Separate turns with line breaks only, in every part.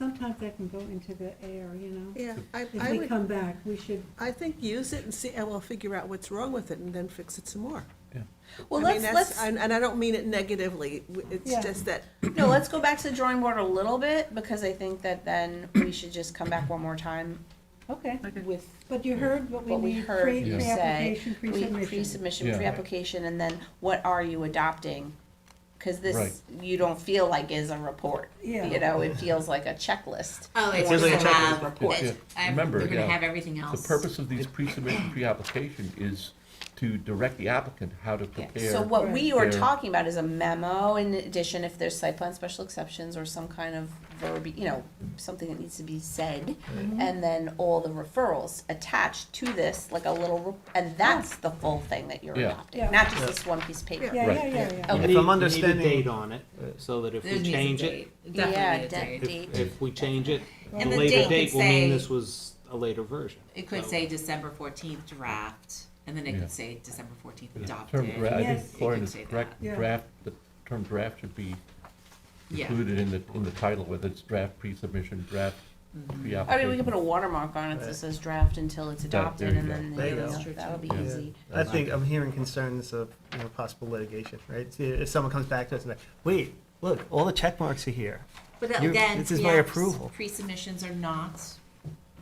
sometimes that can go into the air, you know?
Yeah, I, I
If we
would,
come back, we should,
I think use it and see, and we'll figure out what's wrong with it and then fix it some more.
Well,
I mean,
let's,
that's-
let's,
And, and I don't mean it negatively, w- it's
Yeah.
just that,
no, let's go back to the drawing board a little bit, because I think that then we should just come back one more time
okay,
with
but you heard what we
What we
need,
heard
pre,
you say.
pre-application,
pre-
pre-submission.
pre-submission,
Yeah.
pre-application, and then what are you adopting? Cause
Right.
this, you don't feel like is a report,
Yeah,
you know, it feels like a checklist.
Oh, it's
feels
just
like a
a
checklist.
have
Yeah,
report. I'm,
remember,
we're gonna
yeah.
have everything
The
else.
purpose of these pre-submission, pre-application is to direct the applicant how to prepare.
So what we are
Fair.
talking about is a memo in addition, if there's site plan special exceptions or some kind of verb, you know, something that needs to be said.
Mm-hmm.
And then all the referrals attached to this, like a little, re- and that's the full thing that you're
Yeah.
adopting,
Yeah.
not just this one piece of paper.
yeah, yeah,
Right.
yeah, yeah.
Oh,
If
Okay.
You need-
I'm
You need a
understanding,
date on it, uh, so that if
There
we
needs a
change it,
date. Definitely
Yeah,
a
de-
date.
date.
if, if we change it, the
And the
later
date
date
could
will mean
say-
this was a later version.
It could say December fourteenth draft, and then it
Yeah.
could say December fourteenth adopted.
Term draft, I
Yes.
think Lauren
It could
is
say
correct,
that. Yeah.
draft, the term draft should be
Yeah.
included in the, in the title, whether it's draft pre-submission, draft
Mm-hmm.
I mean, we can
pre-application.
put a watermark on it that says draft until it's
there
adopted
you
and
go.
then,
There
you
you
know,
go.
that'll be
Yeah.
easy.
I think I'm hearing concerns of you know, possible litigation, right? See, If someone comes back to us and like, wait, look, all the check marks are here.
But
You-
again,
this is
pre-
my approval.
Pre-submissions are not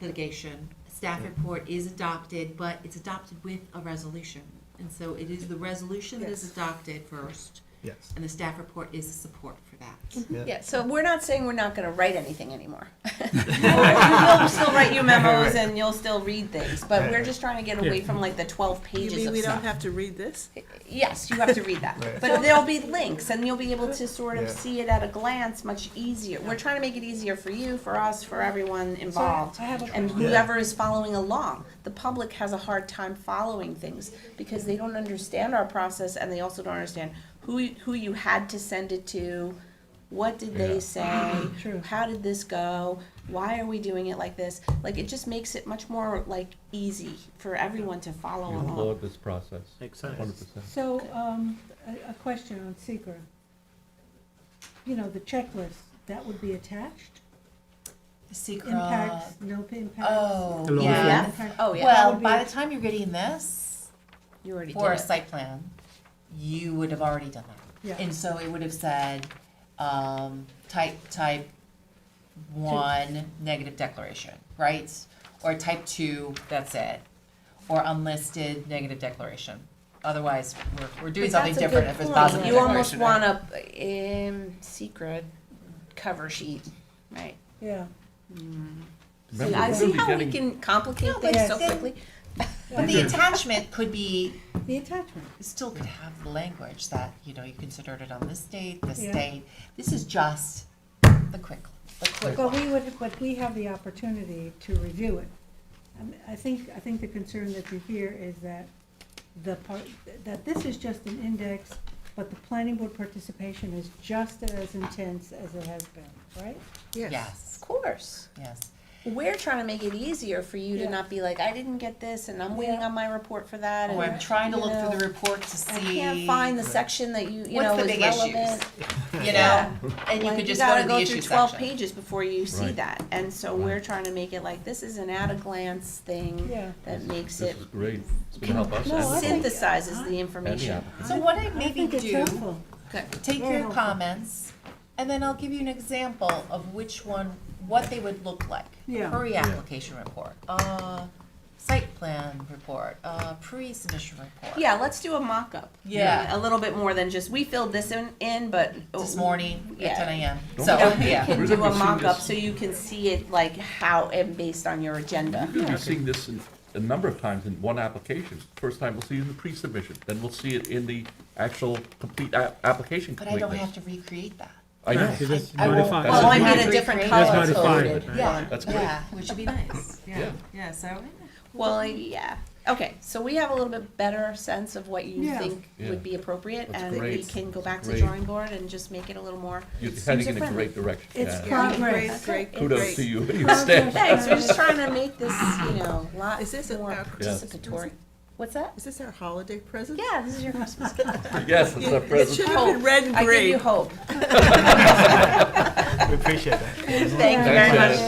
litigation. Staff report is adopted, but it's adopted with a resolution. And so it is the resolution that is adopted first,
Yes.
and the staff report is the support for that.
Yeah, so we're not saying we're not gonna write anything anymore. You'll still write your memos and you'll still read things, but we're just trying to get away from like the twelve
you
pages
mean
of
we don't
stuff.
have to read this?
Yes, you have to read that,
Right.
but there'll be links and you'll be able to sort of
Yeah.
see it at a glance much easier. We're trying to make it easier for you, for us, for everyone
So I
involved.
have a
And
question.
whoever is following along, the public has a hard time following things because they don't understand our process and they also don't understand who, who you had to send it to, what did
Yeah.
they say,
True.
how did this go, why are we doing it like this? Like, it just makes it much more like easy for everyone to follow
You
along.
applaud this process,
Makes
hundred
sense.
percent.
So, um, a, a question on secret. You know, the checklist, that would be attached? Impacts, no impacts?
Oh,
It'll all
yeah.
fit.
Impact-
Oh, yeah,
Well,
would be-
by the time you're getting this
you already did
for a
it.
site plan, you would have already done that.
Yeah.
And so it would have said, um, type, type one, negative declaration, right? Or type two, that's it, or unlisted negative declaration. Otherwise, we're, we're doing
But
something
that's a
different
good
if it's
point.
positive
You almost
declaration,
want
right?
a, um, secret cover sheet, right?
Yeah.
See,
Remember,
I
we're
see
gonna be
how we
getting-
can complicate
No, but
things so
then-
quickly.
But the attachment could be
The attachment,
still could have the language that, you know, you considered it on this date, this
Yeah.
date. This is just the quick, the quick
but
one.
we would, but we have the opportunity to review it. I mean, I think, I think the concern that you hear is that the part, that this is just an index, but the planning board participation is just as intense as it has been, right?
Yes,
Of course.
yes.
We're trying to make it easier for you to
Yeah.
not be like, I didn't get this and I'm waiting
Yeah.
on my report for that.
Or Oh, I'm
And
trying to
you
look through
know,
the report to see.
I can't find the section that you, you
What's
know,
the
is
big issues?
relevant.
You
Yeah.
know, and you
Like,
could just go
gotta
to
go
the
through
issue
twelve
section.
pages before you see
Right.
that. And so
Right.
we're trying to make it like, this is an at-a-glance thing
Yeah.
that makes
This
it,
is great, it's gonna help us
No,
Oh,
I
and
think-
synthesizes the
the- and the
information.
applicant.
So what I
I
maybe
think it's
do,
helpful.
take
Very
your
helpful.
comments, and then I'll give you an example of which one, what they would look like.
Yeah.
Pre-application report, uh, site plan report, uh, pre-submission report.
Yeah, let's do a mock-up.
Yeah.
A little bit more than just, we filled this in, in, but.
This morning
Yeah.
at ten AM,
Don't
so,
forget-
You
yeah.
can
We're
do
gonna
a
be seeing
mock-up
this-
so you can see it like how and based on your agenda.
We'll be seeing this in- a number of times in one application. First time we'll see it in the pre-submission, then we'll see it in the actual complete a- application
But I don't
completeness.
have to recreate that.
I know.
You just
I won't-
notify-
Well, I
That's
made a
not
different
recreated.
color
That's not
coded.
defined.
Yeah.
That's great.
Yeah,
Which would be nice,
Yeah.
yeah, yeah, so,
Well, yeah, okay, so we have a little bit better sense of what you
Yeah.
think
Yeah.
would be appropriate,
That's
and we
great.
can go back to the
Great.
drawing board and just make it a little more.
You're
user
heading in a
friendly.
great direction.
It's
Yeah.
Yeah,
Progress.
Great, great, great.
Kudos to you and your
Progress.
staff.
Thanks, we're just trying to make this, you know, lot
Is this a-
more
a-
participatory. What's that?
Is this our holiday present?
Yeah, this is your Christmas card.
Yes, it's a
It should
present.
have been
Hope.
red and
I give
green.
you hope.
We appreciate that.
Thank you very
Thanks,
much.
guys.